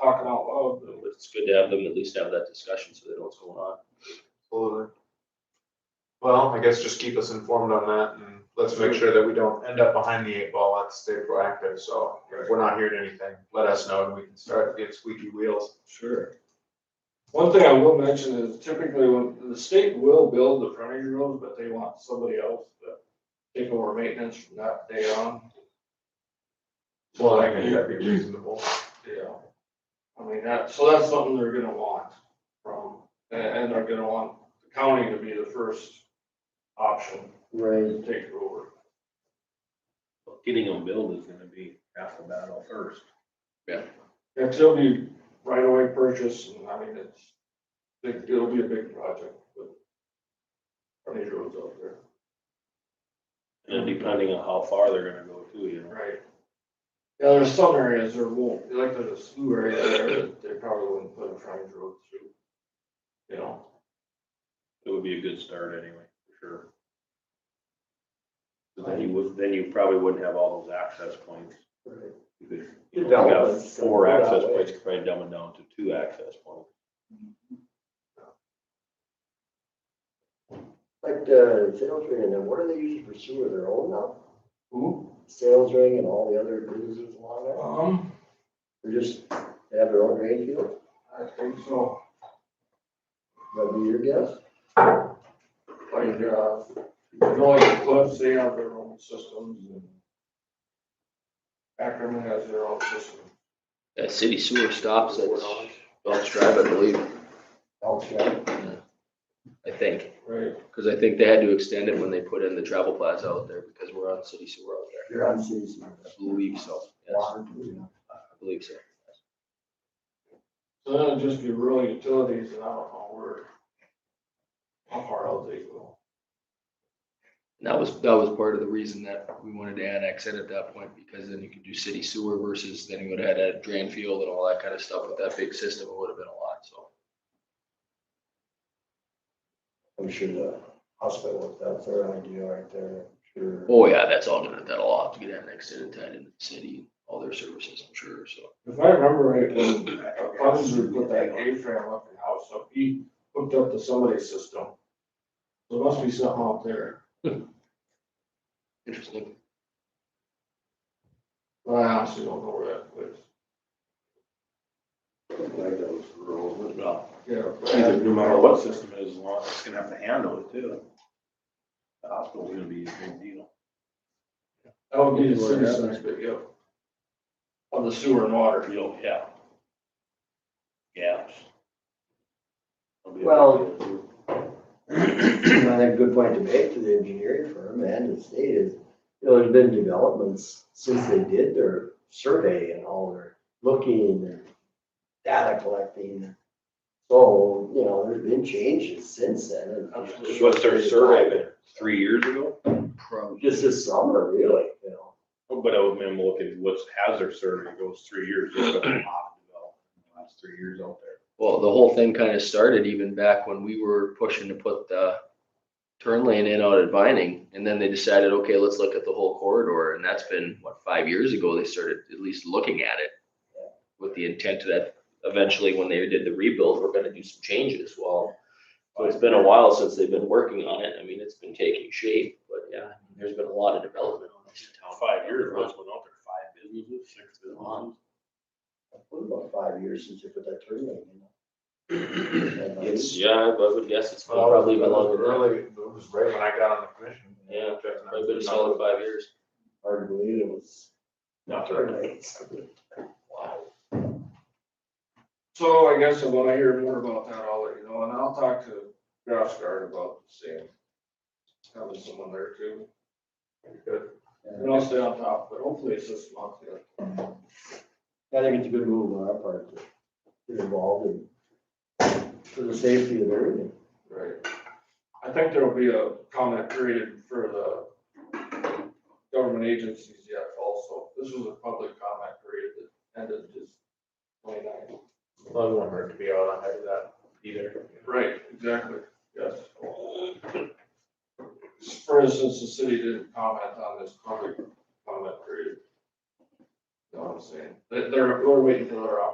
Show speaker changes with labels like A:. A: talking out loud, but
B: It's good to have them at least have that discussion so they know what's going on.
C: Absolutely. Well, I guess just keep us informed on that and let's make sure that we don't end up behind the eight ball. Let's stay proactive. So if we're not hearing anything, let us know and we can start getting squeaky wheels.
A: Sure. One thing I will mention is typically when, the state will build the frontage roads, but they want somebody else to take over maintenance from that day on.
C: Well, I think that'd be reasonable.
A: Yeah. I mean, that, so that's something they're gonna want from, and, and they're gonna want the county to be the first option
D: Right.
A: to take it over.
B: But Getting them built is gonna be half the battle first.
A: Yeah, it it'll be right away purchase, and I mean, it's, it- it'll be a big project, but frontage roads out there.
B: And depending on how far they're gonna go too, you know.
A: Right. Yeah, there's some areas there won't, like there's a slew area there that they probably wouldn't put a frontage road through. You know,
B: It would be a good start anyway, for sure. So Then you would, then you probably wouldn't have all those access points.
D: Right.
B: You could,
D: You're
B: you know, if you
D: dumb,
B: have
D: but it's gonna
B: four
D: go that
B: access
D: way.
B: points, you could probably dumb it down to two access points.
D: Like the uh, sales ring and then what are they using for sewer? Their own now?
A: who,
D: Sales ring and all the other businesses along there?
A: um,
D: They're just, they have their own drain field?
A: I think so,
D: That'd be your guess?
A: like, uh, you know, like the clubs, they have their own systems and. Ackerman has their own system.
E: That city sewer stops at Belch Drive, I believe,
D: Oh, sure.
E: I think,
A: Right.
E: because I think they had to extend it when they put in the travel plaza out there because we're on city sewer out there.
D: You're on city sewer.
E: I believe so, yes,
D: Water, too.
E: I believe so.
A: So that'll just be rural utilities and I don't know where. How far out they go.
E: And that was, that was part of the reason that we wanted to annex it at that point, because then you could do city sewer versus then you would have had a drain field and all that kind of stuff with that big system, it would have been a lot, so.
D: I'm sure the hospital, that's their idea right there. Sure.
E: Oh, yeah, that's all gonna, that'll all have to get annexed in and tied into the city, all their services, I'm sure, so.
A: If I remember right, when uh, Clemson put that A frame up in house up, he hooked up to somebody's system. There must be something out there.
E: Interesting.
A: But I honestly don't know where that place.
B: Like those rural, well,
A: Yeah.
B: either no matter what system it is, as long as it's gonna have to handle it too. The hospital's gonna be a big deal.
A: That would be the city center, but yeah. Of the sewer and water.
B: Real, yeah. Gaps. It'll be a big
D: Well-
B: deal, too.
D: I think a good point to make to the engineering firm and the state is, you know, there's been developments since they did their survey and all their looking and data collecting. So, you know, there's been changes since then. and-
A: Absolutely.
B: What's their survey been, three years ago?
E: Probably.
D: Just this summer, really, you know.
B: Oh, But I would mean, look at what's hazard survey goes three years, there's been a lot of development in the last three years out there.
E: Well, the whole thing kind of started even back when we were pushing to put the turn lane in out at Vining. And then they decided, okay, let's look at the whole corridor. And that's been, what, five years ago, they started at least looking at it with the intent that eventually when they did the rebuild, we're gonna do some changes. Well, so it's been a while since they've been working on it. I mean, it's been taking shape, but yeah, there's been a lot of development on this town.
B: Five years, once went out there, five businesses, six businesses.
D: What about five years since they put that turn lane in?
E: It's, yeah, I would guess it's been
C: Well,
E: probably
C: it
E: been
C: was
E: longer than that.
C: Early, it was right when I got on the commission.
E: Yeah, Probably been a solid five years.
D: Hard to believe it was
C: Not
D: turn
C: to-
D: lanes.
A: So I guess when I hear more about that, I'll let you know, and I'll talk to Grassgard about seeing. Having someone there too.
C: Good.
A: And I'll stay on top, but hopefully it's this month, yeah.
D: I think it's a good move on our part to get involved in for the safety of everything.
A: Right. I think there'll be a comment period for the government agencies yet also. This was a public comment period that ended this twenty-nine.
C: Well, I won't hurt to be out on that either.
A: Right, exactly, yes. For instance, the city didn't comment on this public comment period. You know what I'm saying? They- They're, we're waiting for their